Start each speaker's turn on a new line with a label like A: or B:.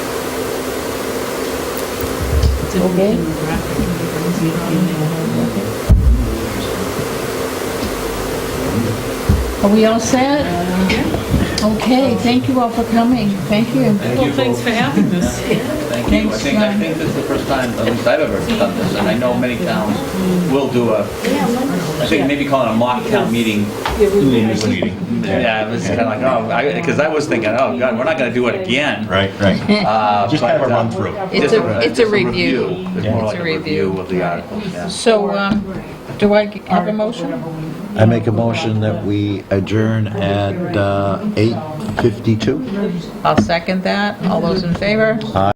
A: different
B: Okay.
A: demographic and different community.
B: Are we all set? Okay, thank you all for coming. Thank you.
C: Thank you
A: Well, thanks
C: both.
A: for having us.
C: Thank you. I
B: Thanks,
C: think, I
B: Ron.
C: think this is the first time, at least I've ever done this, and I know many towns will do a, I think maybe call it a mock town meeting.
D: News meeting.
C: Yeah, it was kind of like, oh, because I was thinking, oh, God, we're not going to do it again.
D: Right, right.
C: Uh,
D: Just kind of a
C: but, uh,
D: run through.
E: It's
C: just
E: a, it's a
C: just
E: review.
C: It's
E: It's
C: more like
E: a
C: a
E: review.
C: review of the articles, yeah.
B: So, um, do I have a motion?
F: I make a motion that we adjourn at uh, 8:52.
B: I'll second that. All those in favor?